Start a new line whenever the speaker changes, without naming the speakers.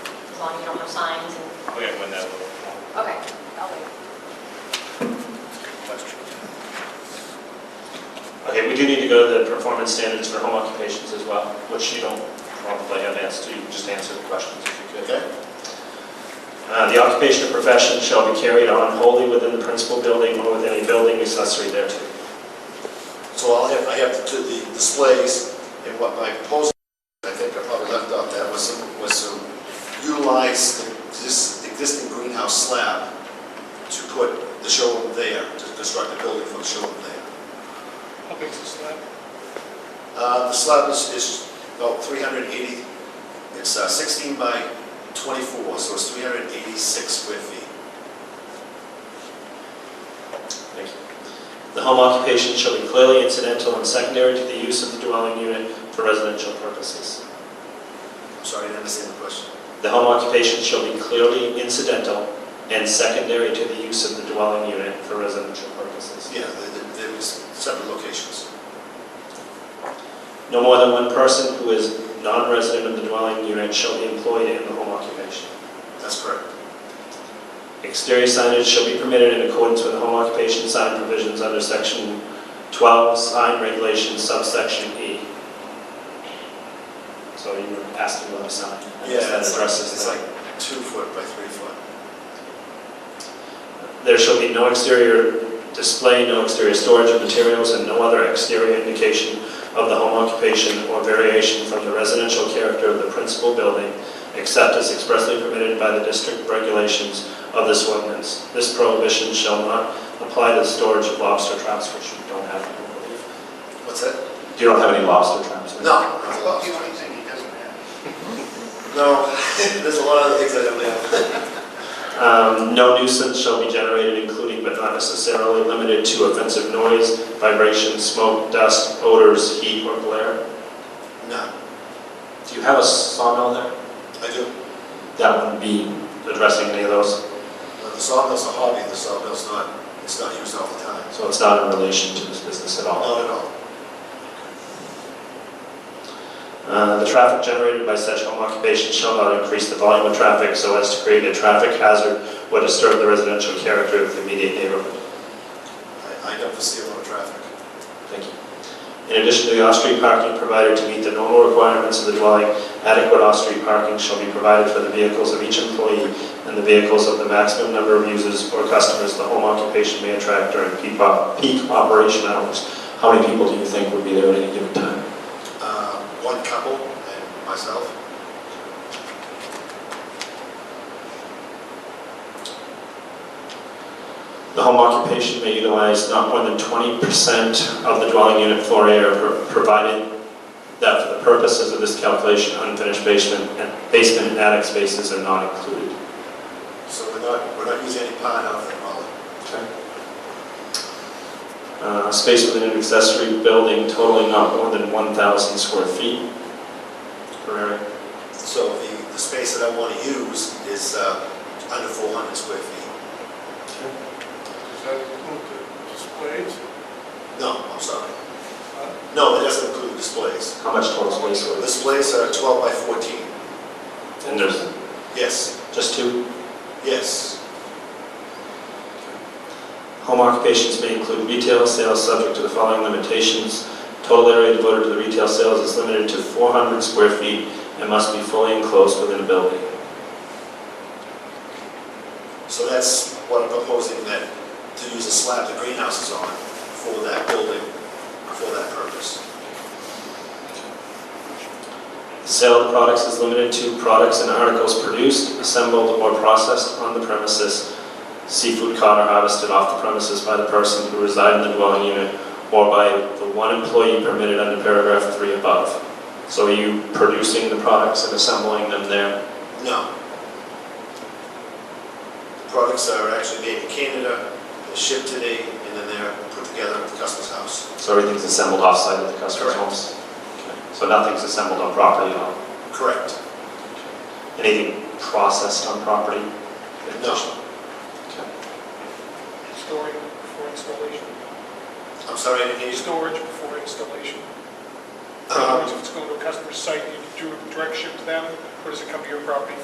long as you don't have signs and,
We have one that little
okay, I'll wait.
question.
Okay, we do need to go to the performance standards for home occupations as well, which you don't probably have answers to, you can just answer the questions if you could.
Okay?
Uh, The occupation or profession shall be carried on wholly within the principal building or within a building accessory thereto.
So I'll have, I have to do the displays, and what my proposal, I think I probably left out that, was some, was some, utilize the this existing greenhouse slab to put the showroom there, to construct a building for the showroom there.
How big's this slab?
Uh, the slab is, is about three hundred eighty, it's uh, sixteen by twenty-four, so it's three hundred eighty-six square feet.
Thank you. The home occupation shall be clearly incidental and secondary to the use of the dwelling unit for residential purposes.
I'm sorry, I didn't understand the question.
The home occupation shall be clearly incidental and secondary to the use of the dwelling unit for residential purposes.
Yeah, there, there- there was separate locations.
No more than one person who is non-resident of the dwelling unit shall be employed in the home occupation.
That's correct.
Exterior signage shall be permitted in accordance with the home occupation sign provisions under section 12 sign regulations subsection E. So you were asking about a sign. I guess That
it's like-
addresses
It's
that.
like two foot by three foot.
There shall be no exterior display, no exterior storage of materials, and no other exterior indication of the home occupation or variation from the residential character of the principal building, except as expressly permitted by the district regulations of this ordinance. This prohibition shall not apply to the storage of lobster traps, which you don't have, I don't believe.
What's that?
You don't have any lobster traps? right?
No. No, there's a lot of things I don't know.
Um, No nuisance shall be generated, including but not necessarily limited to offensive noise, vibration, smoke, dust, odors, heat, or glare.
No,
Do you have a sawmill there?
I do.
That wouldn't be addressing any of those,
The sawmill's a hobby, the sawmill's not, it's not used all the time.
so it's not in relation to this business at all.
Not at all.
Uh, The traffic generated by such home occupation shall not increase the volume of traffic so as to create a traffic hazard or disturb the residential character of the immediate neighborhood.
I, I don't foresee a lot of traffic.
Thank you. In addition to the off-street parking provided to meet the normal requirements of the dwelling, adequate off-street parking shall be provided for the vehicles of each employee and the vehicles of the maximum number of users or customers the home occupation may attract during peak op- peak operation hours. How many people do you think would be there at any given time?
Uh, one couple and myself.
The home occupation may utilize not more than 20% of the dwelling unit floor area pro- provided that for the purposes of this calculation, unfinished basement and basement and attic spaces are not included.
So we're not, we're not using any pine out there, Molly.
Okay. Uh, Space within an accessory building totaling not more than 1,000 square feet per area.
So the, the space that I want to use is, uh, under four hundred square feet.
Does that include the displays?
No, I'm sorry.
Huh?
No, it doesn't include displays.
How much total space
The
would this?
Displays are twelve by fourteen.
And there's
Yes,
just two.
yes,
Home occupations may include retail sales subject to the following limitations. Total area devoted to the retail sales is limited to 400 square feet and must be fully enclosed within a building.
so that's what I'm proposing that, to use a slab the greenhouse is on for that building, for that purpose.
Sale of products is limited to products and articles produced, assembled, or processed on the premises. Seafood caught or harvested off the premises by the person who reside in the dwelling unit or by the one employee permitted under paragraph three above. So are you producing the products and assembling them there?
No. The Products are actually made in Canada, they're shipped today, and then they're put together at the customer's house.
So everything's assembled offsite at the customer's
Correct.
homes? Okay. So nothing's assembled on property at all?
Correct.
Anything processed on property?
No.
Okay.
Storing before installation.
I'm sorry, I didn't hear you.
Storage before installation. In other words,
Uh-huh.
Um,
if it's going to a customer's site, you do direct ship to them, or does it come to your property